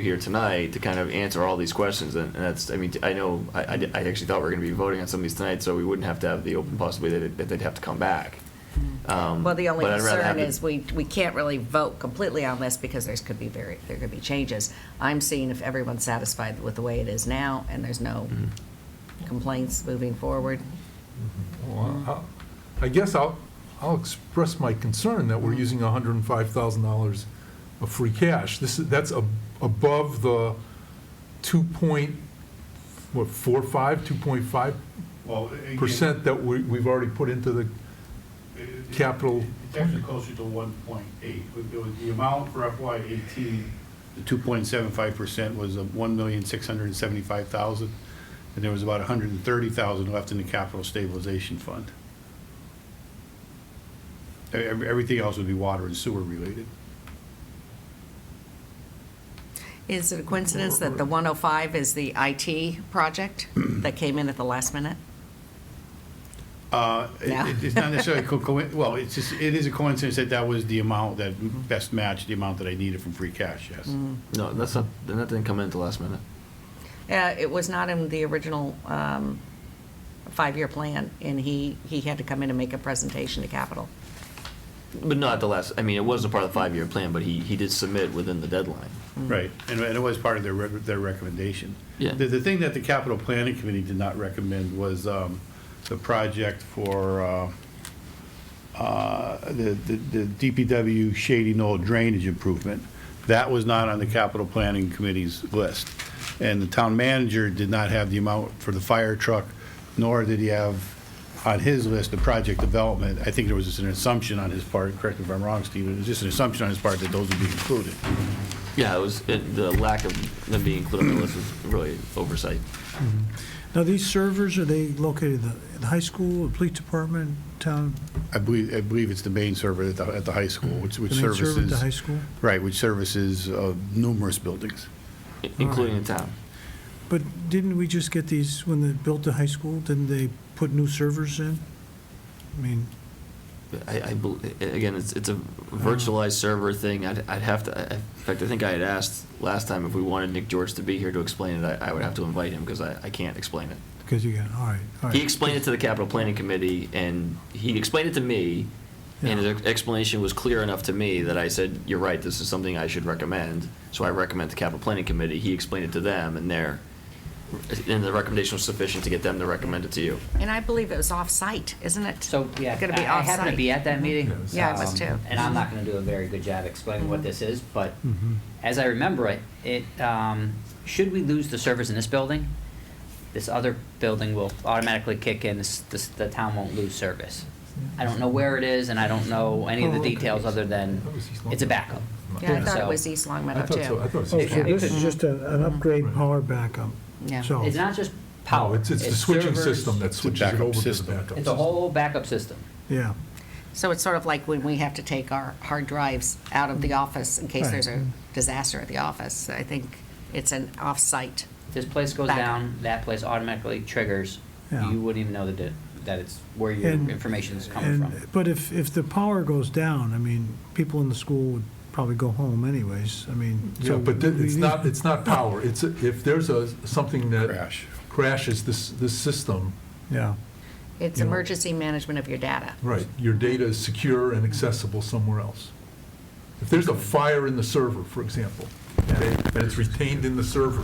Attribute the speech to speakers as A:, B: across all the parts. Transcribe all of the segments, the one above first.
A: here tonight to kind of answer all these questions, and, and that's, I mean, I know, I, I di- I actually thought we were gonna be voting on some of these tonight, so we wouldn't have to have the open possibility that, that they'd have to come back. Um,
B: Mm-hmm. Well, the only
A: but I'd rather have
B: concern
A: the-
B: is we, we can't really vote completely on this because there's could be very, there could be changes. I'm seeing if everyone's satisfied with the way it is now and there's no
A: Mhm.
B: complaints moving forward.
C: Well, I- I guess I'll, I'll express my concern that we're using $105,000 of free cash. This is, that's ab- above the 2 point, what, 45, 2.5
D: Well, again,
C: percent that we, we've already put into the,
D: it- it-
C: capital-
D: It's actually closer to one point eight. The amount for FY eighteen, the two point seven five percent was one million six hundred and seventy-five thousand, and there was about hundred and thirty thousand left in the capital stabilization fund. E- ev- Everything else would be water and sewer related.
B: Is it a coincidence that the 105 is the IT project that came in at the last minute?
D: Uh, it-
B: No.
D: It's not necessarily, co- coin- well, it's just, it is a coincidence that that was the amount that best matched the amount that I needed from free cash, yes.
A: No, that's not, then that didn't come in at the last minute.
B: Uh, It was not in the original um, five-year plan, and he, he had to come in and make a presentation to Capitol.
A: But not at the last, I mean, it wasn't part of the five-year plan, but he, he did submit within the deadline.
D: Right, and and it was part of their, rec- their recommendation.
A: Yeah.
D: The, the thing that the capital planning committee did not recommend was, um, the project for, uh, uh, the, the the DPW Shady Knoll drainage improvement. That was not on the capital planning committee's list. And the town manager did not have the amount for the fire truck, nor did he have on his list the project development. I think there was just an assumption on his part, correct me if I'm wrong, Steve, it was just an assumption on his part that those would be included.
A: Yeah, it was, it- the lack of them being included on the list was really oversight.
E: Now, these servers, are they located in the- in the high school, the police department, town?
D: I believe, I believe it's the main server at the, at the high school, which, which
E: the main server at The high
D: services,
E: school?
D: right, which services uh, numerous buildings.
A: i- Including the town.
E: But didn't we just get these, when they built the high school, didn't they put new servers in? I mean,
A: I, I, bel- a- again, it's, it's a virtualized server thing. I'd, I'd have to, I- in fact, I think I had asked last time if we wanted Nick George to be here to explain it. I, I would have to invite him because I, I can't explain it.
E: because you got, all right, all right.
A: He explained it to the capital planning committee and he explained it to me. And
E: Yeah.
A: his explanation was clear enough to me that I said, you're right, this is something I should recommend. So I recommend the capital planning committee. He explained it to them and their, and the recommendation was sufficient to get them to recommend it to you.
B: And I believe it was off-site, isn't it?
F: So, yeah,
B: Gonna be
F: I I happened
B: off-site.
F: to be at that meeting.
C: Yes.
B: Yeah, I was
F: um,
B: too. Mm-hmm.
F: And I'm not going to do a very good job explaining what this is, but
C: Mm-hmm.
E: Mhm.
F: as I remember it, it, um, should we lose the servers in this building, this other building will automatically kick in, this, this, the town won't lose service. I don't know where it is, and I don't know any of
C: Oh,
F: the
C: okay.
F: details other than
C: That was East Long
F: it's a
C: Meadow.
F: backup.
B: Yeah, I thought it
F: So-
B: was East Long
C: I
B: Meadow,
C: thought so, I
B: too.
C: thought
E: Oh,
C: so.
E: so this is just a- an upgrade
C: Right.
E: power backup.
B: Yeah.
E: So-
F: It's not just
C: Oh. No,
F: power.
C: it's, it's the switching
F: servers.
C: system that
D: a
C: switches it
D: backup
C: over to the
D: system.
C: backup.
F: It's a whole backup system.
E: Yeah,
B: So it's sort of like when we have to take our hard drives out of the office in case
E: Mm. Right. Mm.
B: there's a disaster at the office. I think it's an off-site.
F: This place goes
B: Backup.
F: down, that place automatically triggers.
E: Yeah.
F: You wouldn't even know that, it- that it's where your
E: And-
F: information is coming from.
E: and, but if, if the power goes down, I mean, people in the school would probably go home anyways, I mean.
C: Yeah,
E: so
C: but
E: we-
C: th-
E: we
C: it's
E: need-
C: not, it's not power. It's, a- if there's a, something that.
D: Crash.
C: Crashes this, this system,
E: Yeah,
B: It's
C: You know-
B: emergency management of your data.
C: right, your data is secure and accessible somewhere else. If there's a fire in the server, for example, okay, and it's retained in the server,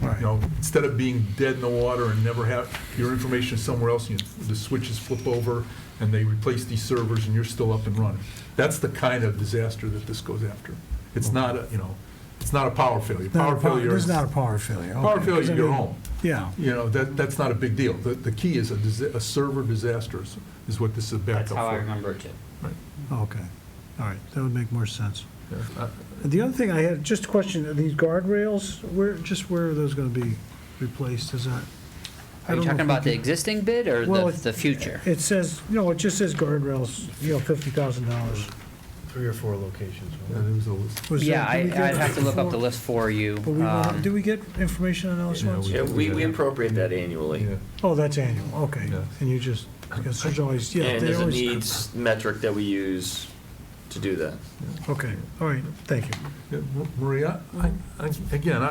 C: you
E: Right.
C: know, instead of being dead in the water and never have, your information is somewhere else, and you- the switches flip over, and they replace these servers, and you're still up and running. That's the kind of disaster that this goes after. It's not, a you know, it's not a power failure.
E: Not a
C: Power
E: pow-
C: failure
E: This is
C: is-
E: not a power failure. okay,
C: Power
E: 'cause I
C: failure, you're
E: mean,
C: home.
E: Yeah.
C: You know, that, that's not a big deal. The, the key is a, disa- a server disaster is- is what this is backup
F: That's
C: for.
F: how I remember it too.
C: Right.
E: Okay, all right, that would make more sense.
C: Yeah. Uh,
E: The other thing I had, just a question, are these guardrails, where, just where are those gonna be replaced, is that? I don't
F: Are you
E: know
F: talking
E: if we
F: about the
E: can-
F: existing bid or
E: Well,
F: the,
E: it-
F: the future?
E: It says, you know, it just says guardrails, you know, fifty thousand dollars.
G: Three or four locations.
C: yeah, there was a list.
E: uh,
F: Yeah, I, I'd have to look up the list for you. um,
E: Do we get information on those
C: Yeah,
E: ones?
C: Yeah, we- we
A: appropriate that annually.
C: Yeah.
E: Oh, that's annual, okay,
C: Yeah.
E: and you just, because there's always, yeah,
A: And
E: they
A: there's a
E: always.
A: needs metric that we use
H: to do that.
A: Okay, all right, thank you.
C: Yeah, Maria, I- I- again,